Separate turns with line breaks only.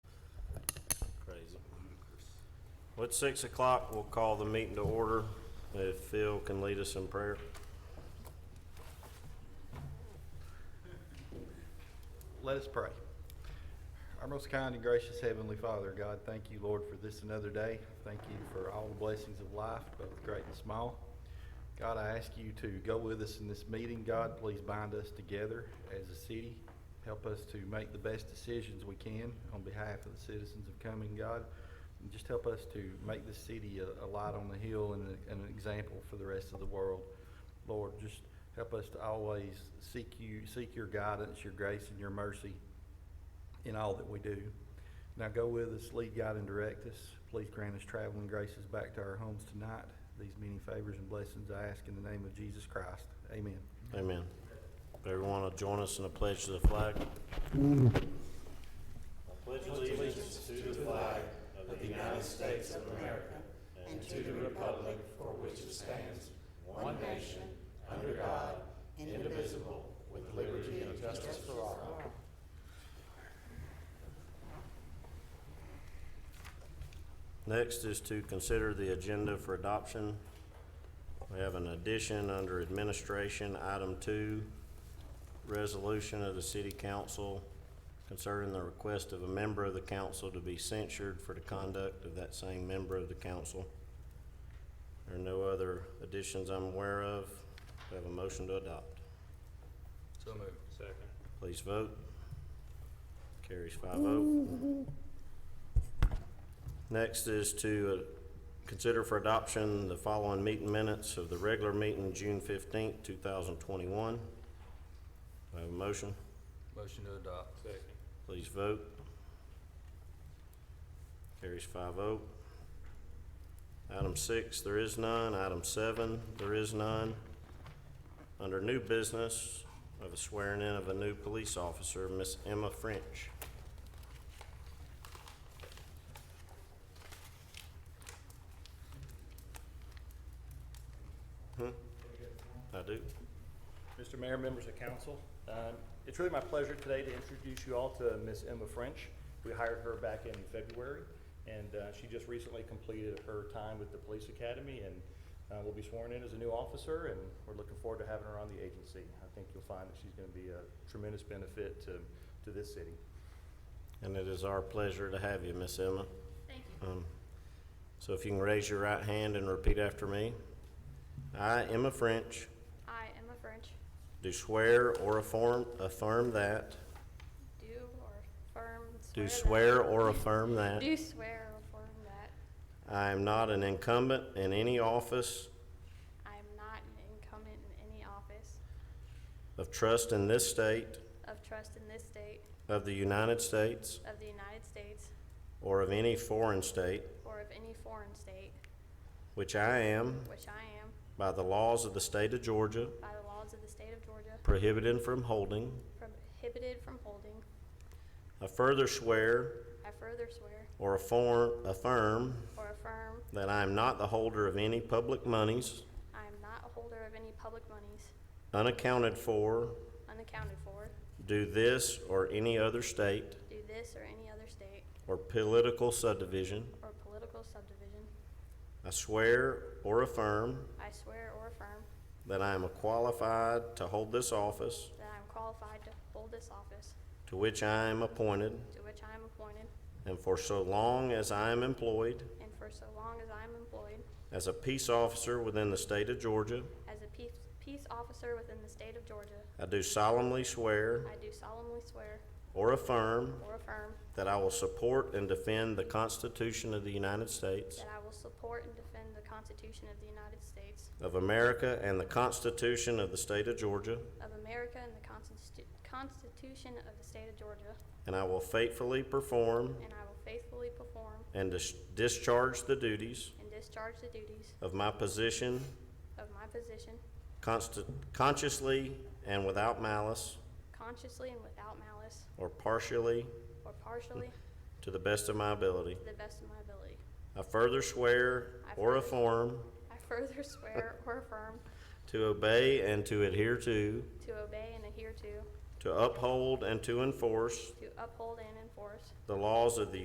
Well, it's six o'clock. We'll call the meeting to order. If Phil can lead us in prayer.
Let us pray. Our most kind and gracious Heavenly Father, God, thank you, Lord, for this another day. Thank you for all the blessings of life, both great and small. God, I ask you to go with us in this meeting. God, please bind us together as a city. Help us to make the best decisions we can on behalf of the citizens of Cumming, God. And just help us to make the city a, a light on the hill and a- and an example for the rest of the world. Lord, just help us to always seek you, seek your guidance, your grace, and your mercy in all that we do. Now go with us, lead, guide, and direct us. Please grant us traveling graces back to our homes tonight. These many favors and blessings I ask in the name of Jesus Christ. Amen.
Amen. If Everyone will join us in a pledge to the flag. Next is to consider the agenda for adoption. We have an addition under administration, item two, resolution of the city council concerning the request of a member of the council to be censured for the conduct of that same member of the council. There are no other additions I'm aware of. We have a motion to adopt.
So moved. Second.
Please vote. Carries five oh. Next is to uh, consider for adoption the following meeting minutes of the regular meeting, June fifteenth, two thousand twenty-one. I have a motion.
Motion to adopt. Second.
Please vote. Carries five oh. Item six, there is none. Item seven, there is none. Under new business, I have a swearing in of a new police officer, Miss Emma French. Hmm? I do.
Mr. Mayor, members of council, um, it's really my pleasure today to introduce you all to Miss Emma French. We hired her back in February, and uh, she just recently completed her time with the police academy and uh, will be sworn in as a new officer, and we're looking forward to having her on the agency. I think you'll find that she's going to be a tremendous benefit to, to this city.
And it is our pleasure to have you, Miss Emma.
Thank you.
Um, So if you can raise your right hand and repeat after me. I, Emma French,
I, Emma French,
do swear or affirm, affirm that,
do or affirm.
do
that-
swear or affirm that
Do swear or affirm that
I am not an incumbent in any office
I am not an incumbent in any office
of trust in this state,
of trust in this state
of the United States,
of the United States
or of any foreign state,
or of any foreign state,
which I am,
which I am,
by the laws of the state of Georgia,
by the laws of the state of Georgia,
prohibited from holding.
prohibited from holding.
I further swear
I further swear
or affirm, affirm
or affirm
That I am not the holder of any public monies
I am not a holder of any public monies
unaccounted for
unaccounted for,
due this or any other state
do this or any other state
or political subdivision.
or political subdivision.
I swear or affirm
I swear or affirm
that I am qualified to hold this office
That I am qualified to hold this office
to which I am appointed
to which I am appointed,
and for so long as I am employed
and for so long as I am employed,
as a peace officer within the state of Georgia,
as a peace, peace officer within the state of Georgia,
I do solemnly swear
I do solemnly swear
or affirm
or affirm
that I will support and defend the Constitution of the United States
that I will support and defend the Constitution of the United States
of America and the Constitution of the state of Georgia.
of America and the Constitu- Constitution of the state of Georgia,
And I will faithfully perform
and I will faithfully perform
and dis- discharge the duties
and discharge the duties
of my position
of my position
consti- consciously and without malice
consciously and without malice
or partially
or partially
to the best of my ability.
to the best of my ability.
I further swear
I
or
further-
affirm
I further swear or affirm
to obey and to adhere to,
to obey and adhere to
to uphold and to enforce
To uphold and enforce.
the laws of the